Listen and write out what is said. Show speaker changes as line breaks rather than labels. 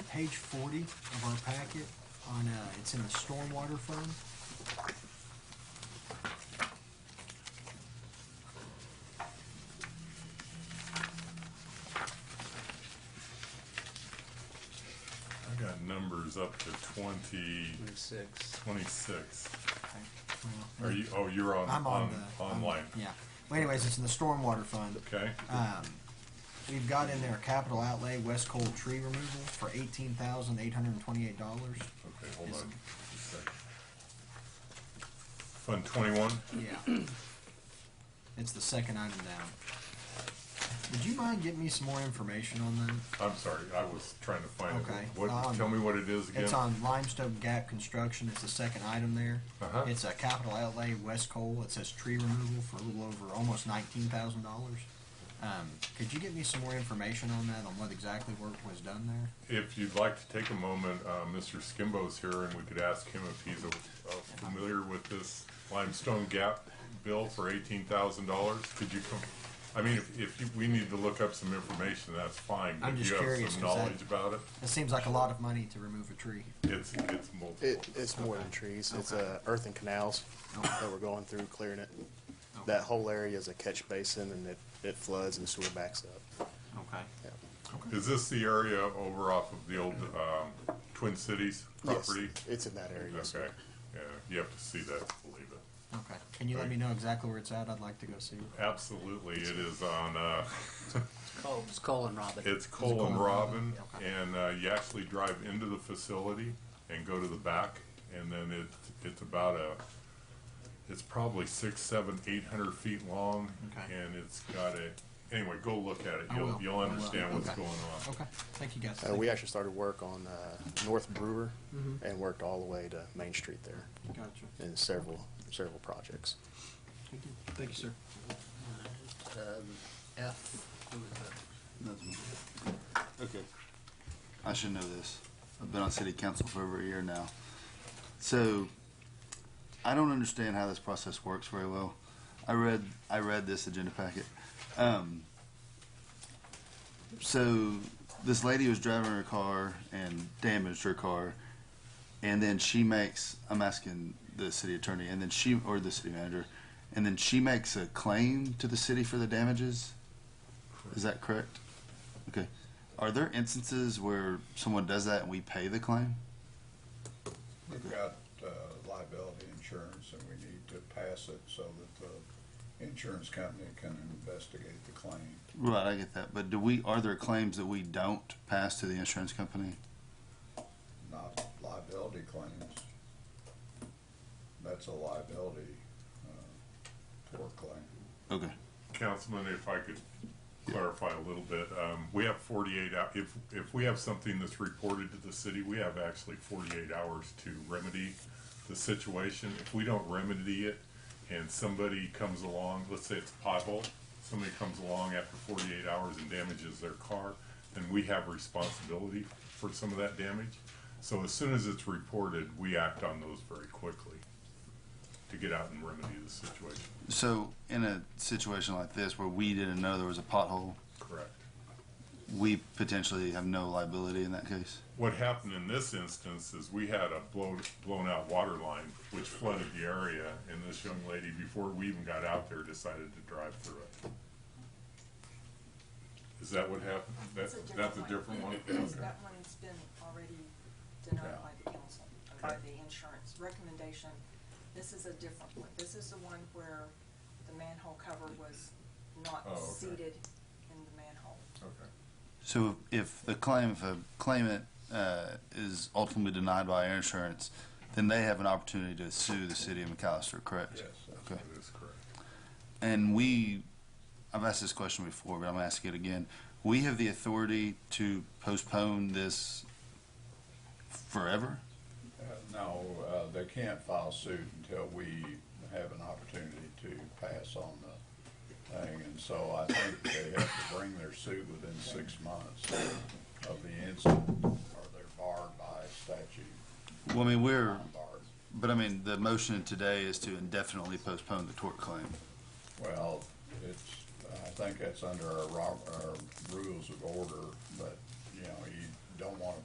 page forty of our packet on, uh, it's in the stormwater fund.
I got numbers up to twenty,
Twenty-six.
twenty-six.
Well,
Are you, oh, you're on,
I'm on
on,
the. I'm-
online,
Yeah. Well anyways, it's in the stormwater fund.
okay?
Um, we've got in there capital outlay, West Cole tree removal for eighteen thousand eight hundred and twenty-eight dollars.
Okay, hold on.
Yes.
just a second. Fund twenty-one?
Yeah. It's the second item down. Would you mind getting me some more information on that?
I'm sorry, I was trying to find it.
Okay,
What,
um,
tell me what it is again?
It's on limestone gap construction, it's the second item there.
Uh-huh.
It's a capital outlay, West Cole, it says tree removal for a little over, almost nineteen thousand dollars. Um, could you get me some more information on that, on what exactly work was done there?
If you'd like to take a moment, uh, Mr. Skimbo's here and we could ask him if he's uh, uh, familiar with this limestone gap bill for eighteen thousand dollars. Could you come, I mean, if, if you- we need to look up some information, that's fine. but
I'm just
If you have
curious,
some
'cause that-
knowledge about it,
It seems like a lot of money to remove a tree.
it's, it's multiple.
It, it's more than trees, it's, uh, earth and canals that we're going through, clearing it. That whole area is a catch basin and it, it floods and sewer backs up.
Okay.
Yeah.
Is this the area over off of the old, um, Twin Cities
Yes,
property?
It's in that area. yes, sir.
Okay, yeah, you have to see that to believe it.
Okay. Can you let me know exactly where it's at? I'd like to go see it.
Absolutely, it is on, uh,
Call, it's Colin Robin.
It's Cole and
Cole
Robin,
and Robin, okay.
and uh, you actually drive into the facility and go to the back, and then it, it's about a, it's probably six, seven, eight hundred feet long,
Okay.
and it's got a, anyway, go look at it,
I
you'll,
will.
you'll
I will.
understand what's
Okay.
going on.
Okay. Thank you guys.
Uh,
Thank Mm-hmm.
we
you.
actually started work on, uh, North Brewer and worked all the way to Main Street there
Gotcha.
in several, several projects.
Thank you. Thank you, sir.
Um, F, who was that?
Nothing. Okay. I should know this. I've been on city council for over a year now. So, I don't understand how this process works very well. I read, I read this agenda packet. Um, so, this lady was driving her car and damaged her car, and then she makes, I'm asking the city attorney, and then she, or the city manager, and then she makes a claim to the city for the damages? Is that correct? Okay. Are there instances where someone does that and we pay the claim?
We've got uh, liability insurance and we need to pass it so that the insurance company can investigate the claim.
Right, I get that. But do we, are there claims that we don't pass to the insurance company?
Not liability claims. That's a liability uh, tort claim.
Okay.
Councilman, if I could clarify a little bit, um, we have forty-eight hou- if, if we have something that's reported to the city, we have actually forty-eight hours to remedy the situation. If we don't remedy it and somebody comes along, let's say it's a pothole, somebody comes along after forty-eight hours and damages their car, then we have responsibility for some of that damage. So as soon as it's reported, we act on those very quickly to get out and remedy the situation,
So in a situation like this where we didn't know there was a pothole,
correct?
we potentially have no liability in that case?
What happened in this instance is we had a blown, blown out water line which flooded the area and this young lady, before we even got out there, decided to drive through it. Is that what happened? That,
That's a
that's a different
different
one?
Because
Okay.
that one's been already denied
Yeah.
by the council, or by the insurance recommendation. This is a different one. This is the one where the manhole cover was not
Oh, okay.
seated in the manhole.
Okay.
So if the claim, if a claimant uh, is ultimately denied by our insurance, then they have an opportunity to sue the city of McAllister, correct?
Yes,
Okay.
That is correct.
And we, I've asked this question before, but I'm gonna ask it again. We have the authority to postpone this forever?
Uh, No, uh, they can't file suit until we have an opportunity to pass on the thing. And so I think they have to bring their suit within six months of the incident, or they're barred by statute.
Well, I mean, we're,
Barred.
but I mean, the motion today is to indefinitely postpone the tort claim.
Well, it's, I think that's under our, ro- our rules of order, but, you know, you don't want